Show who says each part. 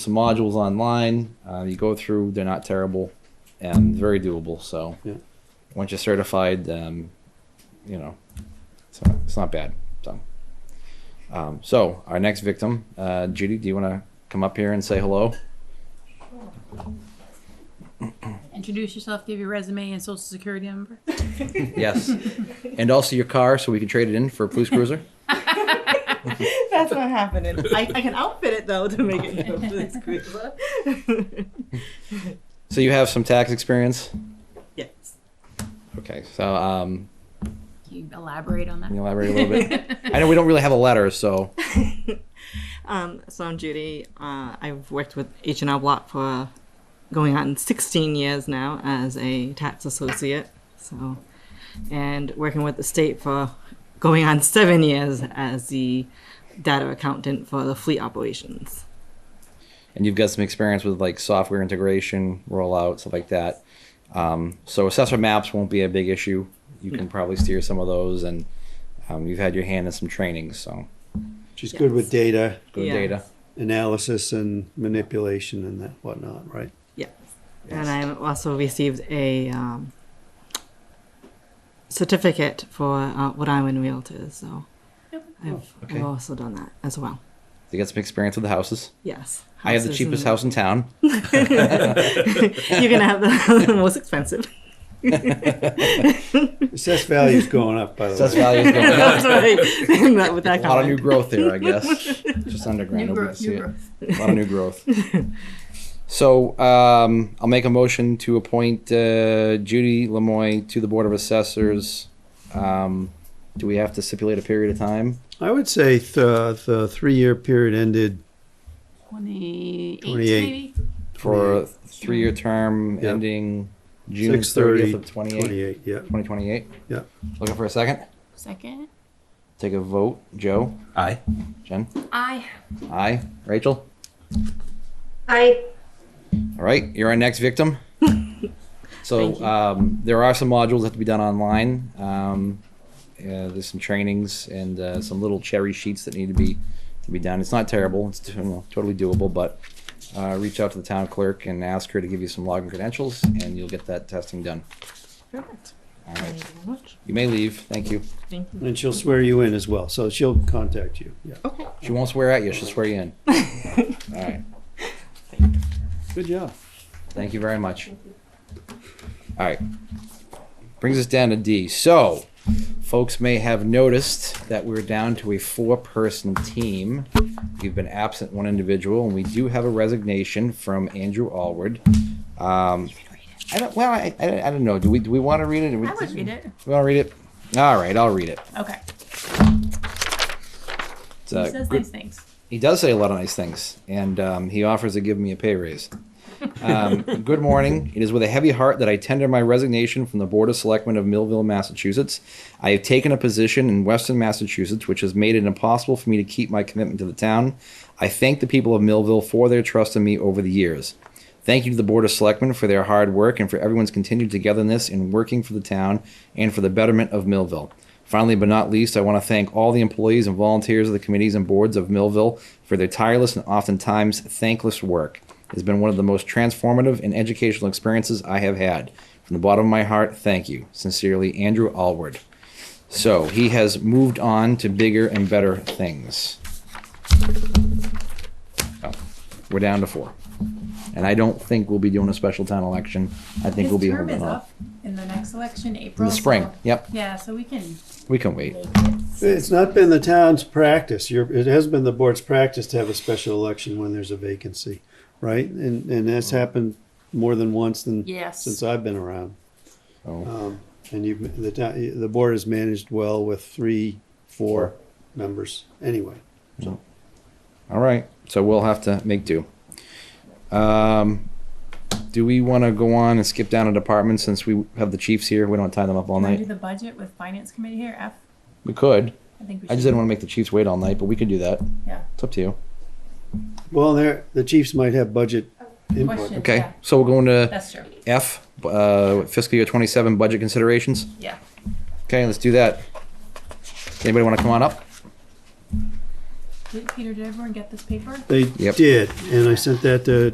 Speaker 1: some modules online. Uh, you go through, they're not terrible and very doable. So
Speaker 2: Yeah.
Speaker 1: once you're certified, um, you know, it's not, it's not bad. So, um, so our next victim, uh, Judy, do you want to come up here and say hello?
Speaker 3: Introduce yourself, give your resume and social security number.
Speaker 1: yes. And also your car so we can trade it in for a police cruiser.
Speaker 4: That's not happening. I, I can outfit it though to make it look this cruiser.
Speaker 1: So you have some tax experience.
Speaker 4: yes.
Speaker 1: Okay. So um,
Speaker 3: Can you elaborate on
Speaker 1: can you
Speaker 3: that?
Speaker 1: elaborate a little bit? I know we don't really have a letter, so
Speaker 4: Um, so I'm Judy. Uh, I've worked with H&R Block for going on 16 years now as a tax associate. So, and working with the state for going on seven years as the data accountant for the fleet operations.
Speaker 1: and you've got some experience with like software integration, rollout, stuff like that. Um, so assessor maps won't be a big issue. You can probably steer some of those, and um, you've had your hand in some trainings, so
Speaker 2: She's good with data
Speaker 1: good
Speaker 4: Yeah.
Speaker 1: data.
Speaker 2: analysis and manipulation and that whatnot, right?
Speaker 4: Yes. And I also received a um, certificate for uh, Rhode Island Realtors. So I've,
Speaker 1: Okay.
Speaker 4: I've also done that as well.
Speaker 1: You got some experience with the houses.
Speaker 4: Yes.
Speaker 1: I have the
Speaker 4: Houses
Speaker 1: cheapest
Speaker 4: and-
Speaker 1: house in town.
Speaker 4: You're going to have the, the most expensive.
Speaker 2: Assessed value's going up, by the
Speaker 1: Assessed
Speaker 2: way.
Speaker 1: value is going up.
Speaker 4: That's right. Not with
Speaker 1: A
Speaker 4: that
Speaker 1: lot of new
Speaker 4: comment.
Speaker 1: growth there, I guess. Just underground.
Speaker 3: New
Speaker 1: nobody
Speaker 3: growth,
Speaker 1: can see
Speaker 3: new
Speaker 1: it. A
Speaker 3: growth.
Speaker 1: lot of new growth. So um, I'll make a motion to appoint uh, Judy Lemoy to the Board of Assessors. Um, do we have to stipulate a period of time?
Speaker 2: I would say th- the three-year period ended,
Speaker 3: 28,
Speaker 2: 28.
Speaker 3: maybe?
Speaker 1: for a three-year term
Speaker 2: Yeah.
Speaker 1: ending June
Speaker 2: 6:30,
Speaker 1: 30th of 28,
Speaker 2: 28, yeah.
Speaker 1: 2028.
Speaker 2: Yeah.
Speaker 1: Looking for a second?
Speaker 3: Second?
Speaker 1: Take a vote. Joe?
Speaker 5: Aye.
Speaker 1: Jen?
Speaker 3: I.
Speaker 1: Aye. Rachel?
Speaker 6: I
Speaker 1: All right, you're our next victim.
Speaker 4: Thank
Speaker 1: So
Speaker 4: you.
Speaker 1: um, there are some modules that have to be done online. Um, uh, there's some trainings and uh, some little cherry sheets that need to be to be done. It's not terrible. It's you know, totally doable. But uh, reach out to the town clerk and ask her to give you some login credentials, and you'll get that testing done.
Speaker 4: Perfect.
Speaker 1: All
Speaker 4: Thank
Speaker 1: right,
Speaker 4: you very much.
Speaker 1: you may leave. Thank you.
Speaker 4: Thank you.
Speaker 2: And she'll swear you in as well, so she'll contact you, yeah.
Speaker 4: Okay.
Speaker 1: She won't swear at you. She'll swear you in. All right.
Speaker 2: Good job.
Speaker 1: Thank you very much. All right. Brings us down to D. So, folks may have noticed that we're down to a four person team. We've been absent one individual, and we do have a resignation from Andrew Allward. Um, I don't, well, I, I, I don't know. Do we, do we want to read it?
Speaker 3: I would read it.
Speaker 1: We want to read it? All right, I'll read it.
Speaker 3: Okay.
Speaker 1: It's
Speaker 3: He
Speaker 1: a
Speaker 3: says
Speaker 1: good-
Speaker 3: nice things.
Speaker 1: he does say a lot of nice things, and um, he offers to give me a pay raise. Um, good morning. It is with a heavy heart that I tender my resignation from the Board of Selectmen of Millville, Massachusetts. I have taken a position in Western Massachusetts which has made it impossible for me to keep my commitment to the town. I thank the people of Millville for their trust in me over the years. Thank you to the Board of Selectmen for their hard work and for everyone's continued togetherness in working for the town and for the betterment of Millville. Finally, but not least, I want to thank all the employees and volunteers of the committees and boards of Millville for their tireless and oftentimes thankless work. It has been one of the most transformative and educational experiences I have had. From the bottom of my heart, thank you. Sincerely, Andrew Allward. So he has moved on to bigger and better things. So, we're down to four. And I don't think we'll be doing a special town election. I think we'll be
Speaker 3: His term
Speaker 1: holding
Speaker 3: is
Speaker 1: on.
Speaker 3: up in the next election, April.
Speaker 1: In the spring.
Speaker 3: so-
Speaker 1: Yep,
Speaker 3: Yeah, so we can
Speaker 1: we can wait.
Speaker 3: make it.
Speaker 2: It's not been the town's practice, your, it has been the board's practice to have a special election when there's a vacancy, right? And, and that's happened more than once than, since
Speaker 3: Yes.
Speaker 2: I've been around.
Speaker 1: So-
Speaker 2: Um, and you've, the, town- the board has managed well with three, four members, anyway.
Speaker 1: All right, so we'll have to make do. Um, do we want to go on and skip down a department since we have the chiefs here? We don't tie them up all
Speaker 3: Can I
Speaker 1: night.
Speaker 3: do the budget with finance committee here, F?
Speaker 1: We could.
Speaker 3: I think we should.
Speaker 1: I just didn't want to make the chiefs wait all night, but we could do that.
Speaker 3: Yeah.
Speaker 1: It's up to you.
Speaker 2: Well, there, the chiefs might have budget input.
Speaker 3: Question.
Speaker 1: Okay,
Speaker 3: Yeah,
Speaker 1: so we're going to
Speaker 3: That's true.
Speaker 1: F, uh, fiscal year 27 budget considerations.
Speaker 3: Yeah.
Speaker 1: Okay, let's do that. Anybody want to come on up?
Speaker 7: Did- Peter, did everyone get this paper?
Speaker 2: They
Speaker 3: Yep.
Speaker 2: did, and I sent that to